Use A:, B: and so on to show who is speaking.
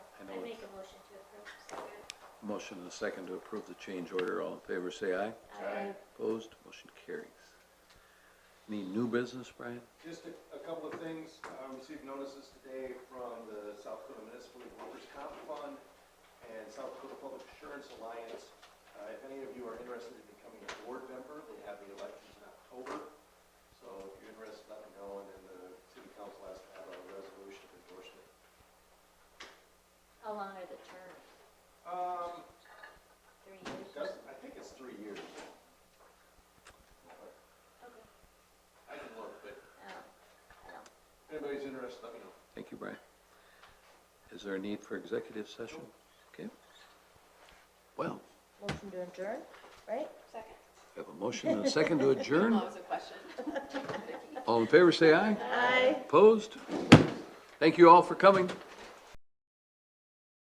A: Motion to approve, second.
B: Motion and a second to approve the change order. All in favor, say aye.
A: Aye.
B: Opposed, motion carries. Any new business, Brian?
C: Just a, a couple of things, I received notices today from the South Dakota Municipal Workers' Comp Fund and South Dakota Public Assurance Alliance. Uh, if any of you are interested in becoming a board member, they have the elections in October. So if you're interested, let me know, and then the city council has to have a resolution of endorsement.
A: How long are the terms?
C: Um,
A: Three years?
C: that's, I think it's three years.
A: Okay.
C: I can look, but
A: Oh, well,
C: if anybody's interested, let me know.
B: Thank you, Brian. Is there a need for executive session? Okay. Well,
D: Motion to adjourn, right?
E: Second.
B: we have a motion and a second to adjourn.
E: That was a question.
B: All in favor, say aye.
D: Aye.
B: Opposed? Thank you all for coming.